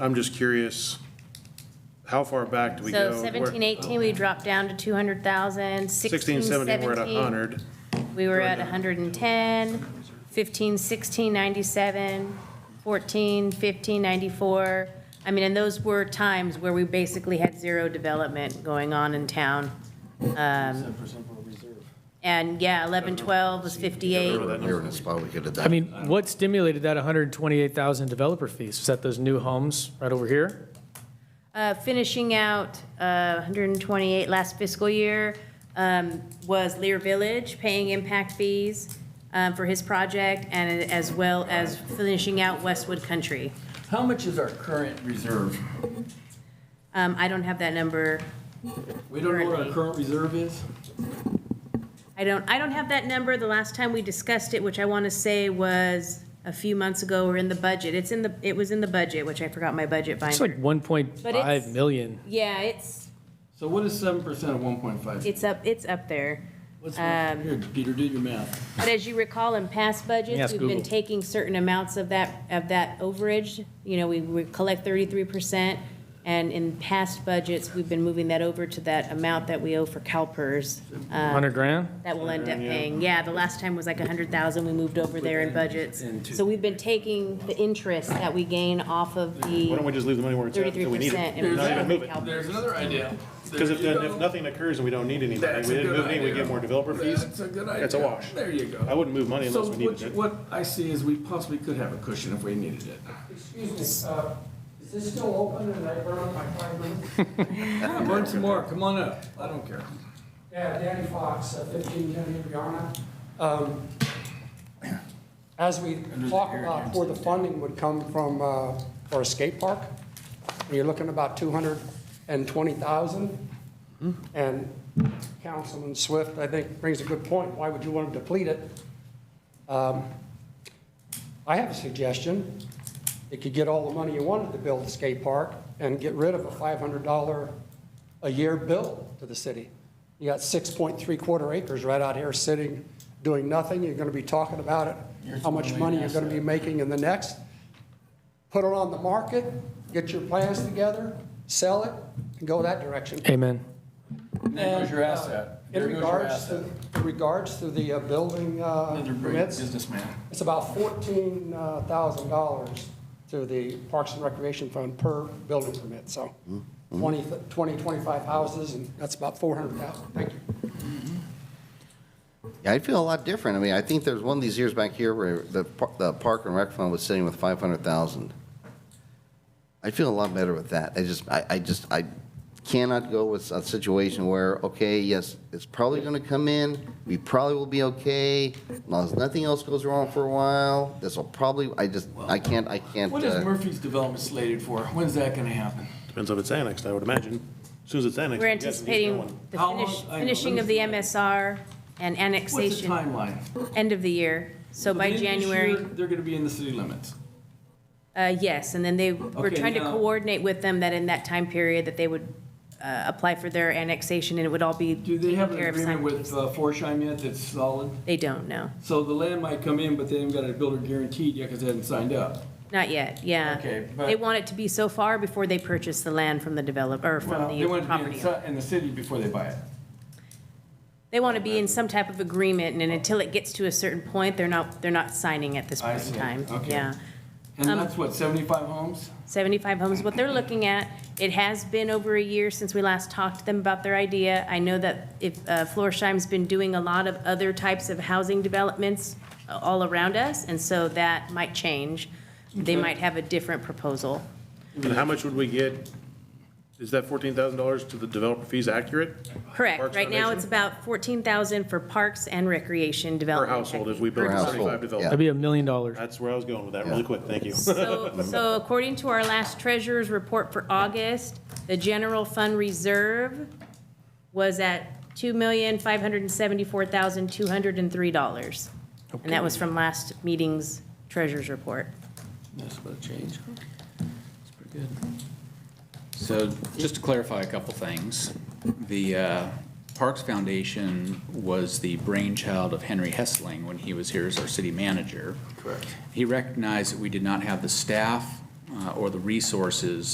I'm just curious, how far back do we go? So seventeen, eighteen, we dropped down to two hundred thousand. Sixteen, Sixteen, seventeen, we're at a seventeen, hundred. we were at hundred and ten. Fifteen, sixteen, ninety-seven. Fourteen, fifteen, ninety-four. I mean, and those were times where we basically had zero development going on in town. Um, And yeah, eleven, twelve was fifty-eight. Here in a spot we could have done. I mean, what stimulated that 128,000 developer fees? Was that those new homes right over here? Uh, Finishing out uh, 128 last fiscal year um, was Lear Village paying impact fees um, for his project, and as well as finishing out Westwood Country. How much is our current reserve? Um, I don't have that number. We don't know what Currently. our current reserve is? I don't, I don't have that number. The last time we discussed it, which I want to say was a few months ago, or in the budget. It's in the, it was in the budget, which I forgot my budget It's binder. like 1.5 million. Yeah, it's, So what is seven percent of one point five? it's um, up, it's up there. Here, Peter, do your math. But as you recall, in past budgets, Yes, we've been Google. taking certain amounts of that, of that overage. You know, we would collect thirty-three percent, and in past budgets, we've been moving that over to that amount that we owe for CalPERS. uh, 100 grand? That we'll end up paying. Yeah, the last time was like a hundred thousand, we moved over there in budgets. So we've been taking the interest that we gain off of Why don't we the just leave the money where it's at thirty-three until we need percent. it? Not even move it. There's another idea. Because if, then- if nothing occurs and we don't need any money, That's we a didn't good move any, we idea. get more developer fees. That's a good idea. That's a wash. There you go. I wouldn't move money So unless we what, needed you- it. what I see is we possibly could have a cushion if we needed it. Excuse me, uh, is this still open and I burned my five minutes? Come on, some more, come on up. I don't care. Yeah, Danny Fox, uh, 1510 Indiana. Um, As we talk about where the funding would come from uh, for a skate park, you're looking about 220,000. And Councilman Swift, I think, brings a good point. Why would you want to deplete it? Um, I have a suggestion. You could get all the money you wanted to build a skate park and get rid of a $500 a year bill to the city. You got 6.3 quarter acres right out here sitting, doing nothing. You're going to be talking about it, how much money you're going to be making in the next. Put it on the market, get your plans together, sell it, and go that direction. Amen. There goes your asset. Uh, In There goes your regards to, asset. in regards to the uh, building uh, Another brilliant permits, businessman. it's about fourteen uh, thousand dollars to the Parks and Recreation Fund per building permit, so 20, 20, 25 houses, and that's about four hundred thousand. Thank you. Yeah, I feel a lot different. I mean, I think there's one of these years back here where the, par- the Park and Rec Fund was sitting with 500,000. I feel a lot better with that. I just, I, I just, I cannot go with a situation where, okay, yes, it's probably going to come in, we probably will be okay, as long as nothing else goes wrong for a while, this will probably, I just, I can't, I can't. What is uh, Murphy's development slated for? When's that gonna happen? Depends if it's annexed, I would imagine. As soon as it's annexed. We're I'm guessing he's anticipating going. the How long- finish, I know, let finishing me of the see. MSR and What's the annexation, timeline? end of the year. So by the end of this January. year, They're gonna be in the city limits. Uh, yes, and then they were Okay, trying to now- coordinate with them that in that time period that they would uh, apply for their annexation and it would all be Do they have taken an care of agreement with simultaneously. uh, Forsheim yet that's solid? They don't, no, So the land might come in, but they haven't got a builder guaranteed yet because they haven't signed up. not yet, yeah. Okay, but- They want it to be so far before they purchase the land from the developer, or Well, from they the want to be property. in owner. ci- in the city before they buy it. They want to be in some type of agreement and then until it gets to a certain point, they're not, they're not signing at this I point in see, time. okay. Yeah. And Um, that's what, 75 homes? 75 homes, what they're looking at. It has been over a year since we last talked to them about their idea. I know that if, uh, Florsheim's been doing a lot of other types of housing developments uh, all around us, and so that might change. They might have a different proposal. And how much would we get? Is that fourteen thousand dollars to the developer fees accurate? Correct. Parks Right now, it's Foundation? about 14,000 for parks and recreation Per development. household, if we build Per household, thirty-five That'd developers. be a million dollars. That's where I was going with that, really Yeah. quick, thank you. So, so according to our last treasurer's report for August, the general fund reserve was at two million, five hundred and seventy-four thousand, two hundred and three dollars. And that was from last meeting's treasurer's report. That's about to change. It's pretty good. So just to clarify a couple things, the uh, Parks Foundation was the brainchild of Henry Hessling when he was here as our city manager. Correct. He recognized that we did not have the staff uh, uh, or the resources